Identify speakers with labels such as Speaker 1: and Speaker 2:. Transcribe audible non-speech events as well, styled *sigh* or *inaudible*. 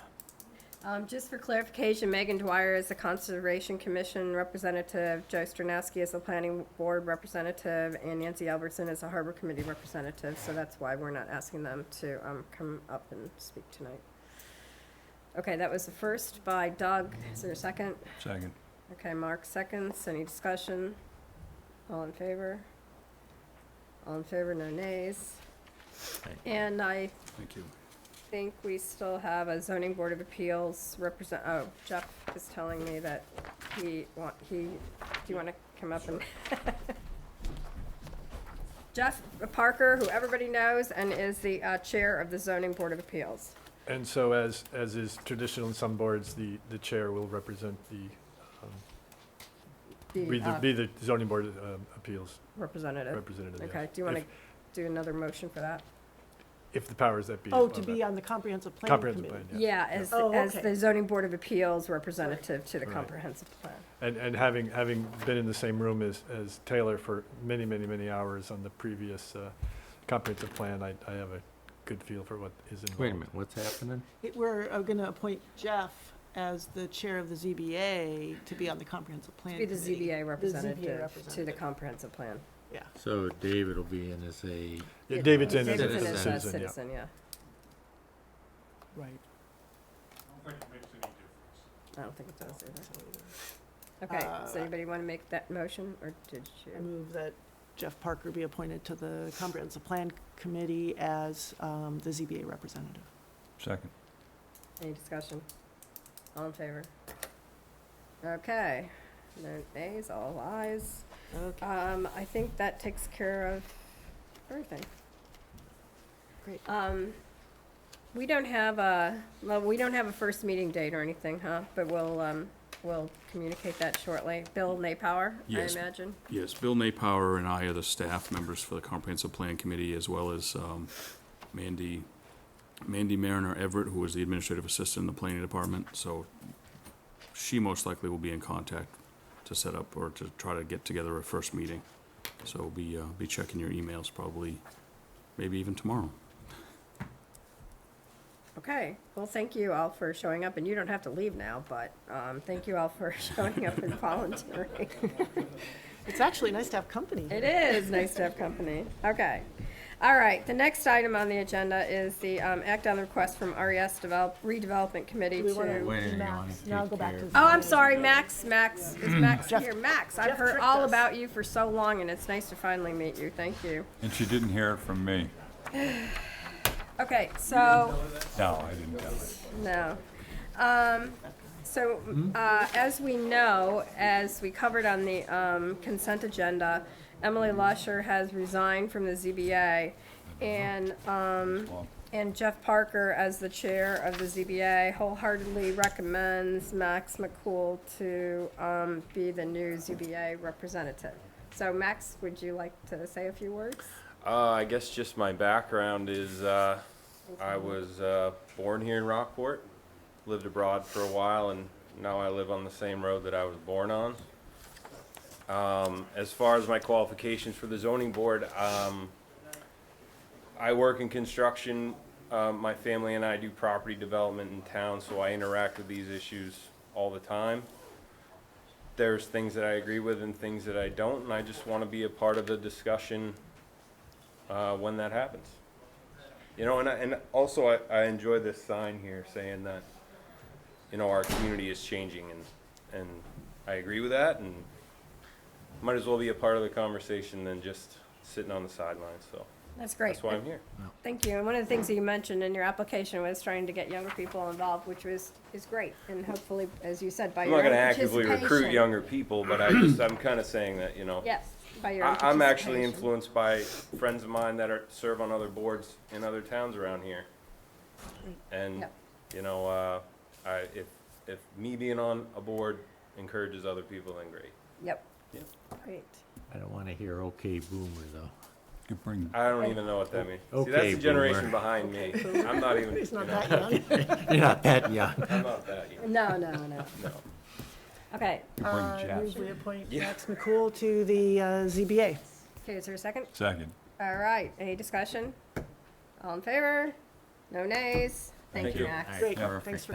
Speaker 1: Um, just for clarification, Megan Dwyer is the Conservation Commission representative, Joe Stranowski is the Planning Board representative, and Nancy Albertson is the Harbor Committee representative, so that's why we're not asking them to, um, come up and speak tonight. Okay, that was the first by Doug. Is there a second?
Speaker 2: Second.
Speaker 1: Okay, Mark seconds. Any discussion? All in favor? All in favor, no nays.
Speaker 3: Right.
Speaker 1: And I
Speaker 2: Thank you.
Speaker 1: think we still have a zoning board of appeals represent, oh, Jeff is telling me that he want, he, do you wanna come up and? *laughs* Jeff Parker, who everybody knows and is the, uh, chair of the zoning board of appeals.
Speaker 4: And so as, as is traditional in some boards, the, the chair will represent the,
Speaker 1: the,
Speaker 4: be the,
Speaker 1: uh,
Speaker 4: be the zoning board um, appeals
Speaker 5: uh,
Speaker 1: Representative.
Speaker 4: representative. yeah.
Speaker 1: Okay, do you wanna
Speaker 4: If-
Speaker 1: do another motion for that?
Speaker 4: If the powers that be.
Speaker 5: Oh,
Speaker 4: allow
Speaker 5: to
Speaker 4: that.
Speaker 5: be on the comprehensive planning
Speaker 4: Comprehensive
Speaker 5: committee.
Speaker 4: plan, yeah.
Speaker 1: Yeah, as,
Speaker 5: Oh,
Speaker 1: as
Speaker 5: okay.
Speaker 1: the zoning board of appeals representative to the
Speaker 4: Right.
Speaker 1: comprehensive plan.
Speaker 4: And, and having, having been in the same room as, as Taylor for many, many, many hours on the previous uh, comprehensive plan, I, I have a good feel for what is involved.
Speaker 3: Wait a minute, what's happening?
Speaker 5: It- We're going to appoint Jeff as the chair of the ZBA to be on the comprehensive plan.
Speaker 1: To Be the
Speaker 5: committee.
Speaker 1: ZBA representative to the
Speaker 5: representative.
Speaker 1: comprehensive plan.
Speaker 3: So David will be in as a,
Speaker 4: Yeah, David's in as
Speaker 1: Davidson
Speaker 4: a
Speaker 1: is a
Speaker 4: citizen, yeah.
Speaker 1: Citizen, yeah.
Speaker 5: Right.
Speaker 1: I don't think it does either.
Speaker 5: So
Speaker 1: Okay, does
Speaker 5: Uh,
Speaker 1: anybody want to make that motion, or did
Speaker 5: I
Speaker 1: you?
Speaker 5: move that Jeff Parker be appointed to the comprehensive plan committee as um, the ZBA representative.
Speaker 2: Second.
Speaker 1: Any discussion? All in favor? Okay, no nays, all ayes.
Speaker 5: Okay.
Speaker 1: Um, I think that takes care of everything.
Speaker 5: Great.
Speaker 1: Um, we don't have a, well, we don't have a first meeting date or anything, huh? But we'll, um, we'll communicate that shortly. Bill Napower, I
Speaker 6: Yes.
Speaker 1: imagine?
Speaker 6: Yes, Bill Napower and I are the staff members for the Comprehensive Plan Committee, as well as um, Mandy, Mandy Mariner Everett, who is the administrative assistant in the planning department, so she most likely will be in contact to set up or to try to get together a first meeting. So be, uh, be checking your emails probably, maybe even tomorrow.
Speaker 1: Okay, well, thank you all for showing up, and you don't have to leave now, but, um, thank you all for *laughs* showing up and volunteering.
Speaker 5: It's actually nice to have company here.
Speaker 1: It is *laughs* nice to have company. Okay. All right, the next item on the agenda is the, um, act on the request from RES Develop, redevelopment committee
Speaker 5: Do we wanna-
Speaker 1: to.
Speaker 3: waiting
Speaker 5: Max,
Speaker 3: on it.
Speaker 5: now
Speaker 3: take
Speaker 5: go back
Speaker 3: care
Speaker 5: to
Speaker 3: of
Speaker 1: Oh, I'm sorry, Max, Max, is Max
Speaker 5: Mm. Jeff-
Speaker 1: here? Max, I've
Speaker 5: Jeff
Speaker 1: heard
Speaker 5: tricked
Speaker 1: all
Speaker 5: us.
Speaker 1: about you for so long, and it's nice to finally meet you. Thank you.
Speaker 2: And she didn't hear it from me.
Speaker 1: Okay, so.
Speaker 2: No, I didn't tell her.
Speaker 1: No. Um, so, uh, as we know, as we covered on the, um, consent agenda, Emily Lusher has resigned from the ZBA. And, um, and Jeff Parker, as the chair of the ZBA, wholeheartedly recommends Max McCool to, um, be the new ZBA representative. So Max, would you like to say a few words?
Speaker 7: Uh, I guess just my background is uh, I was uh, born here in Rockport, lived abroad for a while, and now I live on the same road that I was born on. Um, as far as my qualifications for the zoning board, um, I work in construction. Um, my family and I do property development in town, so I interact with these issues all the time there's things that I agree with and things that I don't, and I just want to be a part of the discussion uh, when that happens. You know, and, I, and also I, I enjoy this sign here saying that, you know, our community is changing, and, and I agree with that, and might as well be a part of the conversation than just sitting on the sidelines, so
Speaker 1: That's great.
Speaker 7: that's why I'm here.
Speaker 1: Thank you. And one of the things that you mentioned in your application was trying to get younger people involved, which was, is great. And hopefully, as you said, by
Speaker 7: I'm
Speaker 1: your
Speaker 7: not
Speaker 1: own
Speaker 7: gonna actively recruit
Speaker 1: participation-
Speaker 7: younger people, but I just, I'm kind of saying that, you know.
Speaker 1: Yes, by your own
Speaker 7: I, I'm actually
Speaker 1: participation.
Speaker 7: influenced by friends of mine that are, serve on other boards in other towns around here. And,
Speaker 1: Yep.
Speaker 7: you know, uh, I, if, if me being on a board encourages other people, then great.
Speaker 1: Yep.
Speaker 7: Yep.
Speaker 1: Great.
Speaker 3: I don't wanna hear okay boomer though.
Speaker 2: Could bring,
Speaker 7: I don't even know what that means. See,
Speaker 3: Okay,
Speaker 7: that's the generation
Speaker 3: boomer.
Speaker 7: behind me. I'm not even,
Speaker 5: He's
Speaker 7: you
Speaker 5: not
Speaker 7: know,
Speaker 5: that young.
Speaker 3: You're not that young.
Speaker 7: I'm not that young.
Speaker 1: No, no, no.
Speaker 7: *laughs* No.
Speaker 1: Okay.
Speaker 2: could
Speaker 5: Uh,
Speaker 2: bring Jeff.
Speaker 5: move We appoint Max McCool to the uh, ZBA.
Speaker 1: Okay, is there a second?
Speaker 2: Second.
Speaker 1: All right. Any discussion? All in favor? No nays? Thank
Speaker 7: Thank
Speaker 1: you,
Speaker 7: you.
Speaker 1: Max.
Speaker 5: Great,
Speaker 3: Perfect.
Speaker 5: thanks for